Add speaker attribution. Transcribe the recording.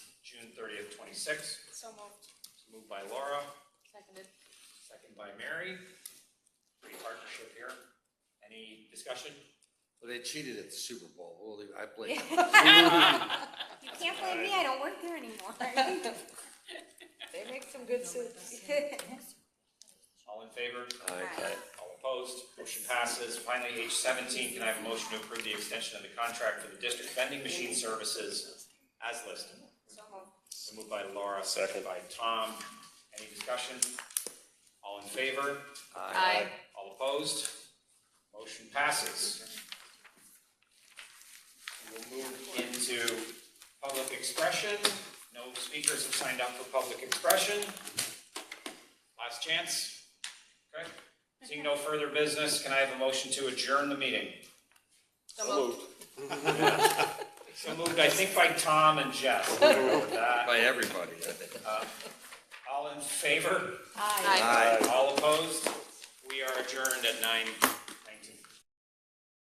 Speaker 1: twenty-six.
Speaker 2: So moved.
Speaker 1: Moved by Laura,
Speaker 2: Seconded.
Speaker 1: second by Mary. Great partnership here. Any discussion?
Speaker 3: Well, They cheated at the Super Bowl. We'll leave- I blame.
Speaker 4: You can't blame me, I don't work there anymore. They make some good soups.
Speaker 1: All in favor?
Speaker 3: Okay.
Speaker 1: All opposed? Motion passes. Finally, H seventeen, can I have a motion to approve the extension of the contract for the district vending machine services as listed?
Speaker 4: So moved.
Speaker 1: Moved by Laura, second by Tom. Any discussion? All in favor?
Speaker 2: Aye.
Speaker 1: All opposed? Motion passes. We'll move into public expression. No speakers have signed up for public expression. Last chance. Okay. Seeing no further business, can I have a motion to adjourn the meeting?
Speaker 2: So moved.
Speaker 1: So moved, I think, by Tom and Jeff. Uh,
Speaker 3: By everybody, I think.
Speaker 1: All in favor?
Speaker 2: Aye.
Speaker 3: Aye.
Speaker 1: All opposed? We are adjourned at nine